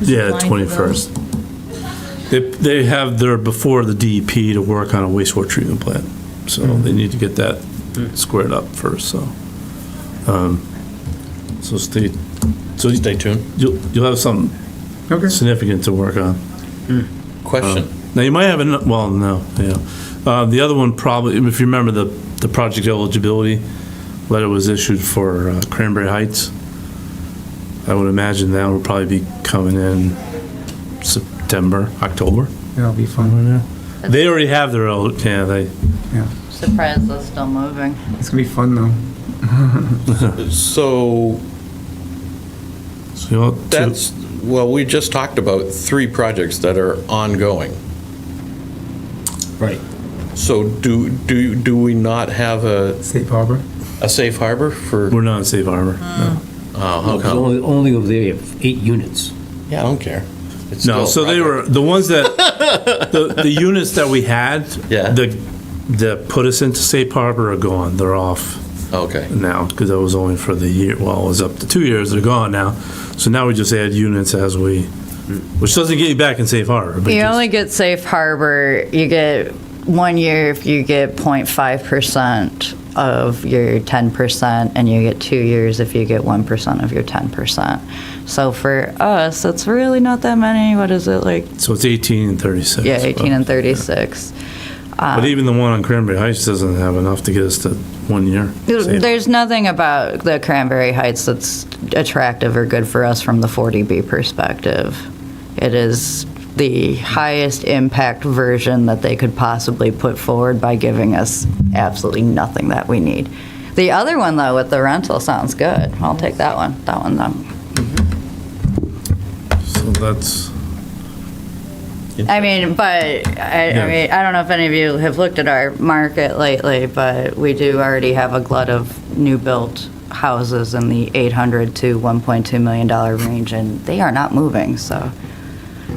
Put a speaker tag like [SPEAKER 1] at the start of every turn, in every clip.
[SPEAKER 1] Yeah,
[SPEAKER 2] blind for them.
[SPEAKER 1] 21st. They, they have their, before the DEP to work on a wastewater treatment plant, so they need to get that squared up first, so. um, So stay, so
[SPEAKER 3] Stay tuned.
[SPEAKER 1] you'll, you'll have something
[SPEAKER 4] Okay.
[SPEAKER 1] significant to work on.
[SPEAKER 3] Question.
[SPEAKER 1] Now, you might have, an well, no, yeah. Uh, The other one probably, if you remember the, the project eligibility letter was issued for uh, Cranberry Heights. I would imagine that would probably be coming in September, October.
[SPEAKER 4] That'll be fun.
[SPEAKER 1] somewhere in there. They already have their, el- yeah, they,
[SPEAKER 2] Surprised they're still moving.
[SPEAKER 4] It's gonna be fun though.
[SPEAKER 3] So
[SPEAKER 1] so you want to-
[SPEAKER 3] that's, well, we just talked about three projects that are ongoing.
[SPEAKER 5] Right.
[SPEAKER 3] So do, do, do we not have a,
[SPEAKER 4] Safe harbor.
[SPEAKER 3] a safe harbor for,
[SPEAKER 1] we're not in safe harbor.
[SPEAKER 3] Hmm.
[SPEAKER 1] no.
[SPEAKER 3] oh,
[SPEAKER 1] Uh-huh.
[SPEAKER 3] how
[SPEAKER 5] Because
[SPEAKER 3] come?
[SPEAKER 5] only, only over there, you have eight units.
[SPEAKER 3] Yeah, I don't care. It's
[SPEAKER 1] No,
[SPEAKER 3] still
[SPEAKER 1] so
[SPEAKER 3] a
[SPEAKER 1] they
[SPEAKER 3] project.
[SPEAKER 1] were, the ones that, the, the units that we had,
[SPEAKER 3] Yeah.
[SPEAKER 1] the, that put us into safe harbor are gone, they're off.
[SPEAKER 3] Okay,
[SPEAKER 1] now, because that was only for the year, well, it was up to two years, they're gone now. So now we just add units as we, which doesn't get you back in safe harbor. but
[SPEAKER 2] You
[SPEAKER 1] just-
[SPEAKER 2] only get safe harbor, you get one year if you get 0.5% of your 10%, and you get two years if you get 1% of your 10%. So for us, that's really not that many. What is it, like,
[SPEAKER 1] So it's 18 and 36.
[SPEAKER 2] yeah, 18 and uh,
[SPEAKER 1] but-
[SPEAKER 2] 36.
[SPEAKER 1] But even the one on Cranberry Heights doesn't have enough to get us to one year. safe.
[SPEAKER 2] There's nothing about the Cranberry Heights that's attractive or good for us from the 40B perspective. It is the highest impact version that they could possibly put forward by giving us absolutely nothing that we need. The other one, though, with the rental sounds good. I'll take that one. That one, though.
[SPEAKER 1] So that's,
[SPEAKER 2] I mean, but I,
[SPEAKER 1] Yeah.
[SPEAKER 2] I mean, I don't know if any of you have looked at our market lately, but we do already have a glut of new built houses in the 800 to 1.2 million dollar range, and they are not moving. So,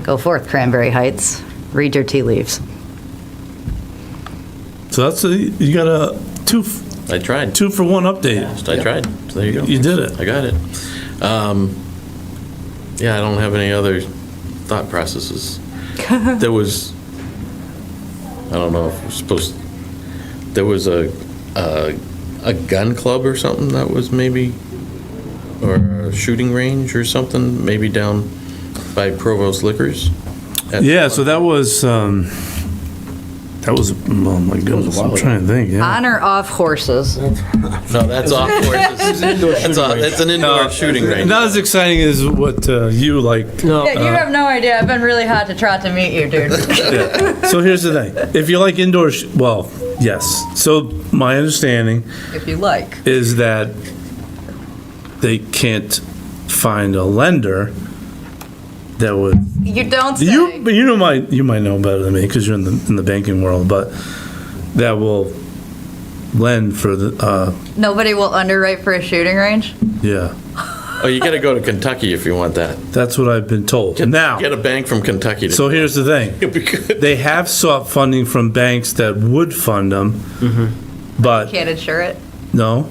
[SPEAKER 2] go forth, Cranberry Heights. Read your tea leaves.
[SPEAKER 1] so that's, a- you got a two, f-
[SPEAKER 3] I tried.
[SPEAKER 1] two for one update.
[SPEAKER 3] I tried. So There you go.
[SPEAKER 1] You did it.
[SPEAKER 3] I got it. Um, Yeah, I don't have any other thought processes. There was, I don't know if we're supposed, there was a, a, a gun club or something that was maybe, or a shooting range or something, maybe down by Provost Liquors. at-
[SPEAKER 1] Yeah, so that was, um, that was, oh my goodness, I'm
[SPEAKER 5] while
[SPEAKER 1] trying to think, yeah.
[SPEAKER 2] On or off horses?
[SPEAKER 3] No, that's off horses. That's off, that's an indoor shooting range.
[SPEAKER 1] Not as exciting as what uh, you like.
[SPEAKER 5] No.
[SPEAKER 2] Yeah, you have no idea. I've been really hot to try to meet you, dude.
[SPEAKER 1] Yeah. So here's the thing. If you like indoor, sh- well, yes. So my understanding
[SPEAKER 2] if you like.
[SPEAKER 1] is that they can't find a lender that would.
[SPEAKER 2] You don't say.
[SPEAKER 1] You, but you know my, you might know better than me because you're in the in the banking world, but that will lend for the, uh,
[SPEAKER 2] Nobody will underwrite for a shooting range.
[SPEAKER 1] yeah.
[SPEAKER 3] Oh, you gotta go to Kentucky if you want that.
[SPEAKER 1] That's what I've been told. Now,
[SPEAKER 3] Get a bank from Kentucky to.
[SPEAKER 1] so here's the thing.
[SPEAKER 3] It'd be good.
[SPEAKER 1] They have sought funding from banks that would fund them, but
[SPEAKER 2] Can't Hmm. insure it.
[SPEAKER 1] No.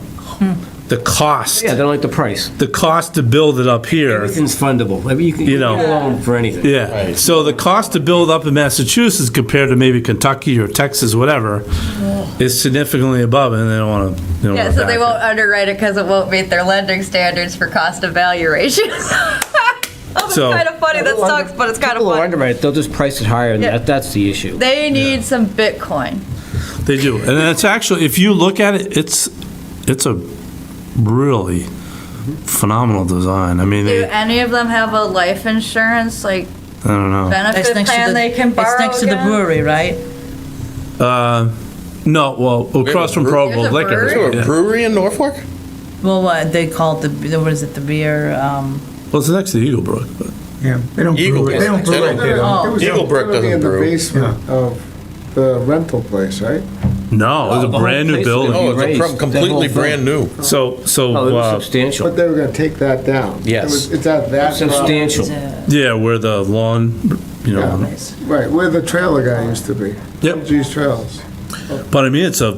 [SPEAKER 1] The cost,
[SPEAKER 5] Yeah, they don't like the price.
[SPEAKER 1] the cost to build it up here,
[SPEAKER 5] Everything's fundable. I mean, you can
[SPEAKER 1] You
[SPEAKER 5] you
[SPEAKER 1] know.
[SPEAKER 5] know loan for anything.
[SPEAKER 1] yeah.
[SPEAKER 3] Right.
[SPEAKER 1] So the cost to build up in Massachusetts compared to maybe Kentucky or Texas, whatever, is significantly above, and they don't want to.
[SPEAKER 2] Yeah, so they won't underwrite it because it won't meet their lending standards for cost of value ratios. oh, that's
[SPEAKER 1] So-
[SPEAKER 2] kind of funny. That
[SPEAKER 5] People under-
[SPEAKER 2] sucks, but it's kind of
[SPEAKER 5] people will
[SPEAKER 2] funny.
[SPEAKER 5] underwrite it. They'll just price it higher, and
[SPEAKER 2] Yeah.
[SPEAKER 5] that, that's the issue.
[SPEAKER 2] They need some Bitcoin.
[SPEAKER 1] They do, and it's actually, if you look at it, it's it's a really phenomenal design. I mean,
[SPEAKER 2] Do
[SPEAKER 1] they, I
[SPEAKER 2] any of them have a life insurance like
[SPEAKER 1] don't know.
[SPEAKER 6] It's
[SPEAKER 2] benefit
[SPEAKER 6] next to
[SPEAKER 2] plan
[SPEAKER 6] the-
[SPEAKER 2] they can borrow
[SPEAKER 6] It's next to the
[SPEAKER 2] against?
[SPEAKER 6] brewery, right?
[SPEAKER 1] Uh, no, well, across from
[SPEAKER 3] brew-
[SPEAKER 1] Provo
[SPEAKER 2] There's a
[SPEAKER 1] Liquor.
[SPEAKER 2] brewery?
[SPEAKER 3] To a
[SPEAKER 1] yeah.
[SPEAKER 3] brewery in Norfolk?
[SPEAKER 6] Well, what, they call it the, the- what is it, the beer, um,
[SPEAKER 1] Well, it's next to Eagle Brook, but
[SPEAKER 4] Yeah, they don't
[SPEAKER 3] Eagle
[SPEAKER 4] brew it. They don't
[SPEAKER 3] Pass.
[SPEAKER 4] brew
[SPEAKER 3] They
[SPEAKER 4] it
[SPEAKER 3] don't-
[SPEAKER 4] there. though.
[SPEAKER 6] Oh.
[SPEAKER 7] It was
[SPEAKER 3] Eagle Brook
[SPEAKER 7] gonna be
[SPEAKER 3] doesn't
[SPEAKER 7] in the
[SPEAKER 3] brew.
[SPEAKER 7] basement of the rental place, right?
[SPEAKER 1] no, it's a
[SPEAKER 5] Oh, The whole
[SPEAKER 1] brand new
[SPEAKER 5] place would be
[SPEAKER 1] building.
[SPEAKER 3] Oh, it's a
[SPEAKER 5] raised,
[SPEAKER 3] pro-
[SPEAKER 5] that
[SPEAKER 3] completely
[SPEAKER 5] whole thing.
[SPEAKER 3] brand new.
[SPEAKER 1] So, so.
[SPEAKER 5] Oh,
[SPEAKER 1] uh,
[SPEAKER 5] it was
[SPEAKER 7] But
[SPEAKER 5] substantial.
[SPEAKER 7] they were gonna take that down. It
[SPEAKER 5] Yes.
[SPEAKER 7] was- It's at that. uh, property.
[SPEAKER 5] Substantial.
[SPEAKER 1] Yeah, where the lawn, you know.
[SPEAKER 7] Right, where the trailer guy used to be.
[SPEAKER 1] Yep.
[SPEAKER 7] G's Trails.
[SPEAKER 1] But I mean, it's a,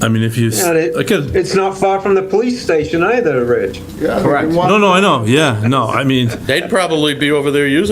[SPEAKER 1] I mean, if you,
[SPEAKER 8] Yeah, it-
[SPEAKER 1] I could,
[SPEAKER 8] It's not far from the police station either, Rich.
[SPEAKER 7] Yeah, they can
[SPEAKER 5] Correct.
[SPEAKER 7] walk
[SPEAKER 1] no, no, I know, yeah, no, I mean,
[SPEAKER 3] They'd probably be over there using